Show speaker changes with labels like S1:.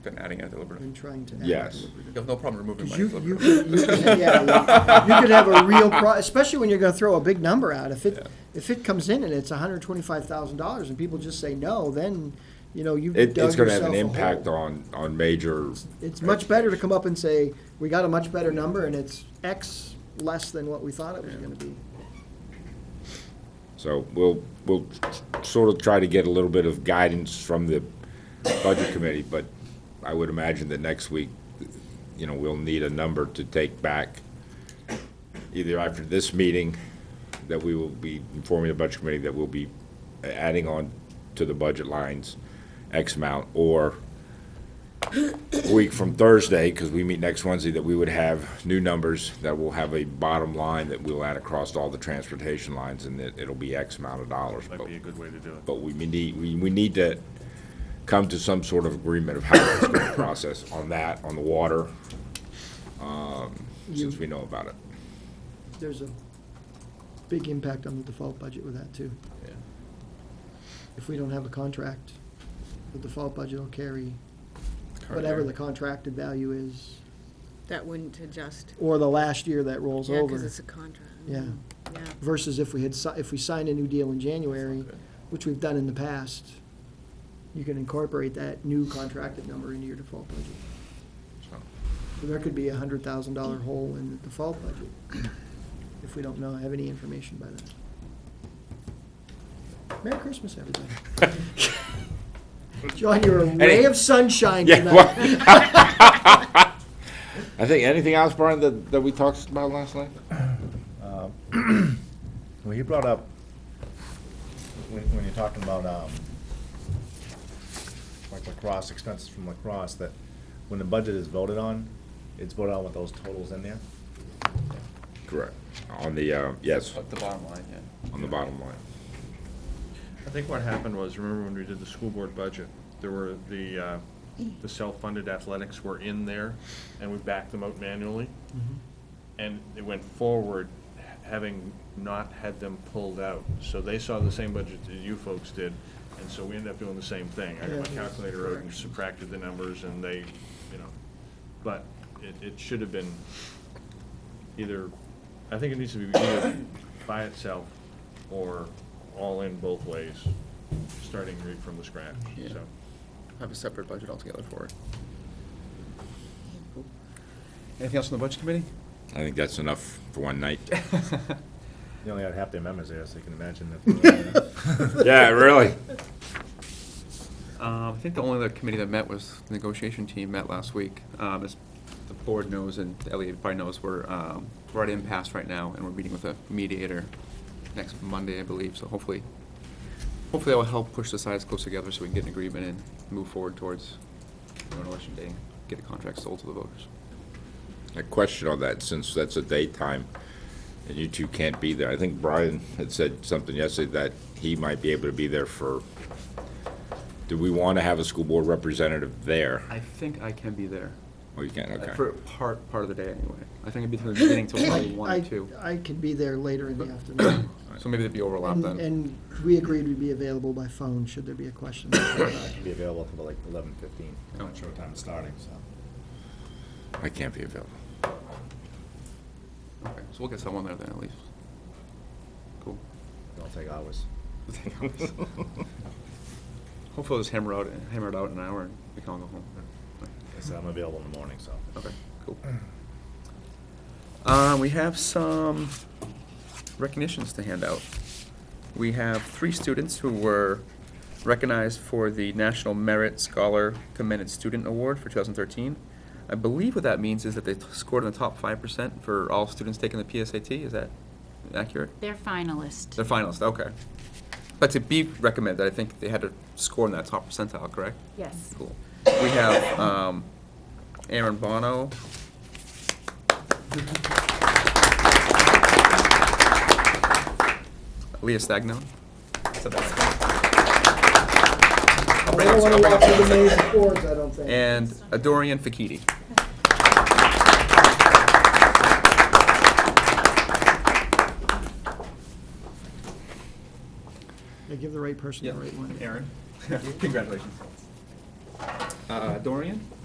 S1: than adding a deliberative.
S2: than trying to add
S3: Yes.
S2: deliberative.
S1: Mm-hmm. You have no problem removing my
S2: Because you, you,
S1: deliberative.
S2: could- you, could- yeah, well, you could have a real pro, especially when you're gonna throw a big number out. If it, if it comes in and it's hundred and twenty-five thousand dollars and people just say no, then, you know, you've
S3: It,
S2: dug
S3: it's gonna have
S2: yourself
S3: an
S2: a
S3: impact
S2: hole.
S3: on, on major,
S2: It's much better to come up and say, we got a much better number and it's X less than what we thought it was gonna be.
S3: so we'll, we'll sort of try to get a little bit of guidance from the budget committee, but I would imagine that next week, you know, we'll need a number to take back either after this meeting, that we will be informing the budget committee that we'll be adding on to the budget lines X amount, or a week from Thursday, because we meet next Wednesday, that we would have new numbers, that we'll have a bottom line that we'll add across all the transportation lines, and that it'll be X amount of dollars.
S4: Might
S3: But-
S4: be a good way to do it.
S3: But we may need, we, we need to come to some sort of agreement of how it's going to process on that, on the water, um, since we know about it.
S2: There's a big impact on the default budget with that too. If we don't have a contract, the default budget will carry whatever the contracted value is,
S5: That wouldn't adjust.
S2: or the last year that rolls
S5: Yeah, because
S2: over.
S5: it's a contract.
S2: Yeah.
S5: Yeah.
S2: versus if we had, si- if we signed a new deal in January,
S1: Okay.
S2: which we've done in the past, you can incorporate that new contracted number into your default budget. So There could be a hundred thousand dollar hole in the default budget if we don't know, have any information by then. Merry Christmas, everybody. John, you're a ray of sunshine
S3: Yeah.
S2: tonight.
S3: well- I think, anything else, Brian, that, that we talked about last night?
S6: Uh, Well, you brought up, when, when you're talking about, um, like lacrosse, expenses from lacrosse, that when the budget is voted on, it's voted on with those totals in there.
S3: Correct. On the, uh, yes,
S1: But the bottom line, yeah.
S3: on the bottom line.
S4: I think what happened was, remember when we did the school board budget, there were the, uh, the self-funded athletics were in there, and we backed them out manually. And it went forward, having not had them pulled out. So they saw the same budget that you folks did, and so we ended up doing the same thing. I got
S2: Yeah.
S4: my calculator out and subtracted the numbers, and they, you know, but it, it should have been either, I think it needs to be either by itself or all in both ways, starting right from the scratch,
S1: Yeah.
S4: so.
S1: Have a separate budget altogether for it. Anything else on the budget committee?
S3: I think that's enough for one night.
S6: You only had half their members there, so you can imagine if.
S3: Yeah, really.
S7: Um, I think the only other committee that met was the negotiation team met last week. Um, As the board knows and Elliot probably knows, we're, um, we're at impasse right now and we're meeting with a mediator next Monday, I believe. So hopefully, hopefully that will help push the sides close together so we can get an agreement and move forward towards you know, an election day, get a contract sold to the voters.
S3: A question on that, since that's a daytime and you two can't be there. I think Brian had said something yesterday that he might be able to be there for, do we want to have a school board representative there?
S7: I think I can be there,
S3: Oh, you can't,
S7: uh,
S3: okay.
S7: for part, part of the day anyway. I think I'd be through the beginning till probably one
S2: I-
S7: or two.
S2: I could be there later in the afternoon.
S7: So maybe there'd be overlap
S2: And,
S7: then.
S2: and we agreed we'd be available by phone, should there be a question.
S6: Be available till like eleven fifteen, I'm not sure what time it's starting, so.
S3: I can't be available.
S7: Okay, so we'll get someone there then at least. Cool.
S6: It'll take hours.
S7: Hopefully just hammer out, hammer it out in an hour and we can all go home.
S6: I said I'm available in the morning, so.
S7: Okay, cool. Uh, we have some recognitions to hand out. We have three students who were recognized for the National Merit Scholar Commended Student Award for 2013. I believe what that means is that they scored in the top 5% for all students taking the PSAT. Is that accurate?
S8: They're finalists.
S7: They're finalists, okay. But to be recommended, I think they had to score in that top percentile, correct?
S8: Yes.
S7: Cool. We have um, Aaron Bono. Leah Stagno. So that's- I'll bring
S2: I
S7: up- I'll
S2: don't want to
S7: bring
S2: walk
S7: up-
S2: through the maze of chords, I don't think.
S7: And Adorian Fakiti.
S2: They give the right person the right one.
S7: Aaron. Congratulations. Uh, Dorian?